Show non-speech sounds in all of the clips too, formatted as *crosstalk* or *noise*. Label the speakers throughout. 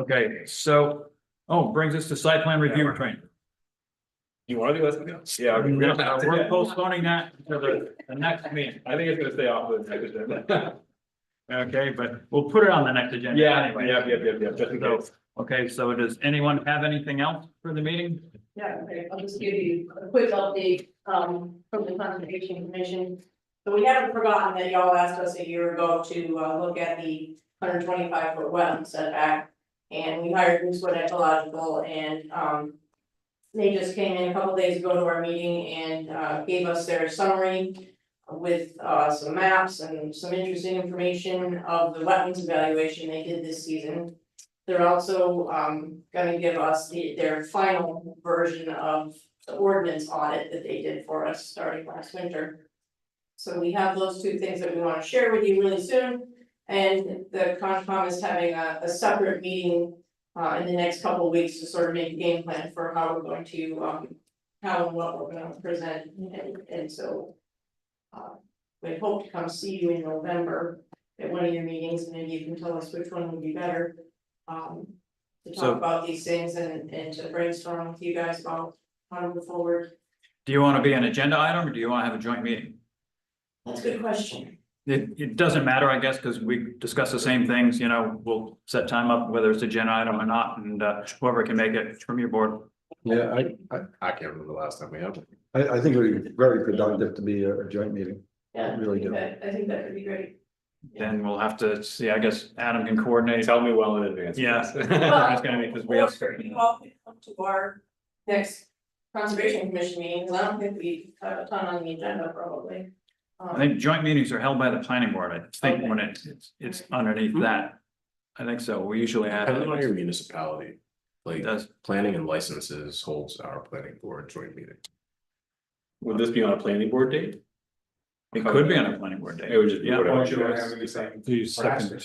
Speaker 1: Okay, so, oh, brings us to site plan review training.
Speaker 2: You wanna do this? Yeah.
Speaker 1: We're
Speaker 2: we're gonna-
Speaker 1: we're postponing that to the, the next meeting,
Speaker 2: I think it's gonna stay off of the next agenda.
Speaker 1: okay, but we'll put it on the next agenda
Speaker 2: *laughs* Yeah,
Speaker 1: anyway.
Speaker 2: yeah, yeah, yeah, yeah, just in
Speaker 1: So,
Speaker 2: case.
Speaker 1: Okay, so does anyone have anything else for the meeting?
Speaker 3: Yeah, okay, I'll just give you a quick update, um, from the conservation commission. So we haven't forgotten that y'all asked us a year ago to, uh, look at the hundred twenty-five foot wetland setback. And we hired Moosewood Ecological and, um. They just came in a couple days ago to our meeting and, uh, gave us their summary. With, uh, some maps and some interesting information of the wetlands evaluation they did this season. They're also um gonna give us the their final version of the ordinance audit that they did for us starting last winter. So we have those two things that we wanna share with you really soon. And the Concom is having a a separate meeting uh in the next couple of weeks to sort of make a game plan for how we're going to um. How and what we're gonna present and and so. Uh, we hope to come see you in November at one of your meetings and maybe you can tell us which one would be better um, to
Speaker 1: So-
Speaker 3: talk about these things and, and to brainstorm with you guys about how to move forward.
Speaker 1: Do you want to be an agenda item or do you want to have a joint meeting?
Speaker 3: That's a good question.
Speaker 1: It, it doesn't matter, I guess, because we discuss the same things, you know, we'll set time up whether it's agenda item or not, and uh, whoever can make it from your board.
Speaker 4: Yeah, I, I,
Speaker 2: I can't remember the last time we had. one.
Speaker 4: I, I think it would be very productive to be a a joint meeting.
Speaker 3: Yeah, I
Speaker 4: Really
Speaker 3: think
Speaker 4: do.
Speaker 3: that, I think that could be great.
Speaker 1: Then we'll have to see, I guess Adam can coordinate.
Speaker 2: Tell me well in advance.
Speaker 1: Yeah.
Speaker 3: Well,
Speaker 1: It's gonna be because we have.
Speaker 3: Or you all could come to our next conservation commission meeting, 'cause I don't think we have a ton on the agenda probably. Um,
Speaker 1: I think joint meetings are held by the planning board, I think, when it's, it's- it's
Speaker 2: Hmm.
Speaker 1: underneath that. I think so, we usually have.
Speaker 5: Depending on
Speaker 1: It
Speaker 5: your municipality, like
Speaker 1: does,
Speaker 5: planning and licenses holds our planning board joint meeting.
Speaker 2: *laughs* Would this be on a planning board date?
Speaker 1: it could be on a planning board
Speaker 2: It
Speaker 1: day.
Speaker 2: would just be
Speaker 1: Yeah.
Speaker 2: whatever.
Speaker 6: The second meeting in November.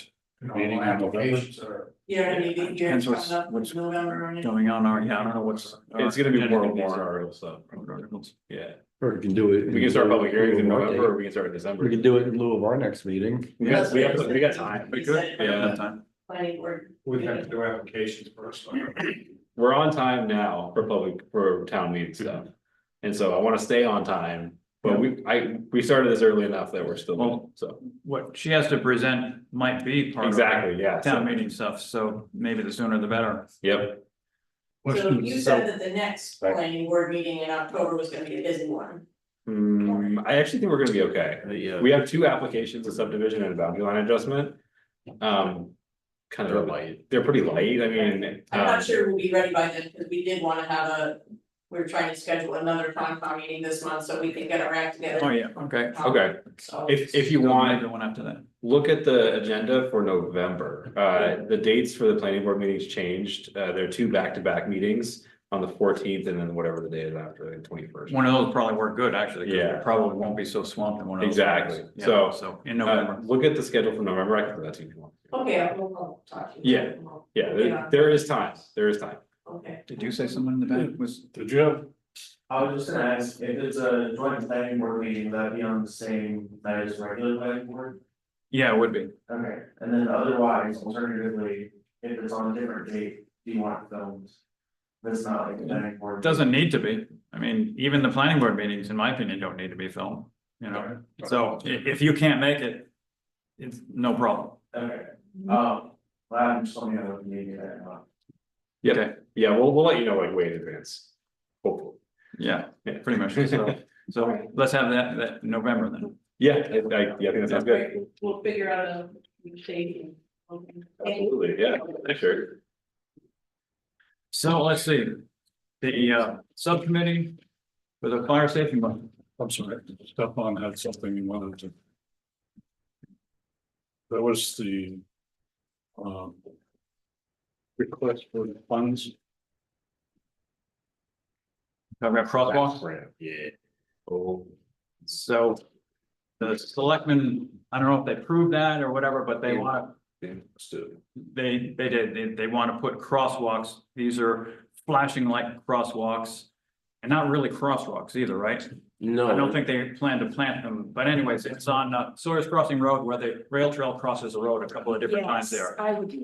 Speaker 3: You know, maybe you're
Speaker 1: Depends what's-
Speaker 3: coming up
Speaker 1: what's
Speaker 3: in November or anything.
Speaker 1: Going on, or, yeah, I don't know what's. uh,
Speaker 2: It's gonna be more
Speaker 1: Agenda
Speaker 2: warrant
Speaker 1: needs-
Speaker 2: article stuff. Yeah,
Speaker 4: Or we can do it.
Speaker 2: we can start public hearings in
Speaker 4: lieu of our
Speaker 2: November or
Speaker 4: date.
Speaker 2: we can start in
Speaker 4: We
Speaker 2: December.
Speaker 4: can do it in lieu of our next meeting.
Speaker 2: We got, we got, we got time.
Speaker 1: We could,
Speaker 2: Yeah.
Speaker 1: yeah.
Speaker 3: Planning board.
Speaker 6: We'd have to do applications first.
Speaker 2: We're on time now for public, for town meeting stuff. And so I wanna stay on time, but we, I, we started this early enough that we're still,
Speaker 1: Well-
Speaker 2: so,
Speaker 1: What she has to present might be part of.
Speaker 2: exactly, yeah. so-
Speaker 1: Town meeting stuff, so maybe the sooner the better.
Speaker 2: Yep,
Speaker 3: So you said that the next planning board meeting in October was gonna be a busy one.
Speaker 2: Hmm, I actually think we're gonna be okay.
Speaker 5: Yeah,
Speaker 2: We have two applications, a subdivision and a boundary line adjustment. Um, kind
Speaker 5: they're
Speaker 2: of,
Speaker 5: light.
Speaker 2: they're pretty light, I mean.
Speaker 3: I'm
Speaker 2: um,
Speaker 1: Uh,
Speaker 3: not sure we'll be ready by then, because we did wanna have a, we we're trying to schedule another Concom meeting this month, so we can get our act
Speaker 1: Oh,
Speaker 3: together.
Speaker 1: yeah, okay.
Speaker 2: Okay,
Speaker 3: So,
Speaker 2: if, if you want,
Speaker 1: The one after that.
Speaker 2: look at the agenda for November. Uh, the dates for the planning board meetings changed. Uh, there are two back-to-back meetings on the fourteenth and then whatever the day is after, the twenty-first.
Speaker 1: One of those probably work good, actually. 'cause we
Speaker 2: Yeah.
Speaker 1: Probably won't be so swamped in one of those.
Speaker 2: Exactly.
Speaker 1: Yeah,
Speaker 2: So,
Speaker 1: So in November.
Speaker 2: Uh, Look at the schedule for November, I can put that to you if you want.
Speaker 3: okay, I'll, I'll talk to you.
Speaker 2: Yeah. Yeah, there, there is time, there is time.
Speaker 3: Okay,
Speaker 1: Did you say someone in the back was?
Speaker 6: Did you have?
Speaker 7: I was just gonna ask, if it's a joint planning board meeting, would that be on the same night as regular planning board?
Speaker 1: Yeah, it would be.
Speaker 7: Okay, and then otherwise, alternatively, if it's on a different date, do you want films? That's not like a planning board.
Speaker 1: Doesn't need to be. I mean, even the planning board meetings, in my opinion, don't need to be filmed, you know? So i- if you can't make it, it's no problem.
Speaker 7: Okay, um, well, I'm just on the other meeting that month.
Speaker 2: Yeah. Yeah, we'll, we'll let you know like way in advance. Hopefully.
Speaker 1: Yeah,
Speaker 2: Yeah.
Speaker 1: pretty much. So, so let's have that, that November then.
Speaker 2: Yeah, I, I, yeah, I think that sounds good.
Speaker 3: Great. we'll figure out a date. and- Okay.
Speaker 2: Absolutely, yeah, sure.
Speaker 1: So let's see. The uh subcommittee for the fire safety month.
Speaker 6: I'm sorry, Stefan had something he wanted to. That was the. Um. Request for funds.
Speaker 1: Talking about crosswalks.
Speaker 5: Grant, Yeah.
Speaker 1: So the selectmen, I don't know if they proved that or whatever, but they want,
Speaker 5: Yeah, let's do it.
Speaker 1: they, they did, they, they want to put crosswalks. These are flashing light crosswalks and not really crosswalks either, right?
Speaker 5: No.
Speaker 1: I don't think they plan to plant them, but anyways, it's on uh, Sawyer's Crossing Road where the rail trail crosses the road a couple of different times there.
Speaker 8: I would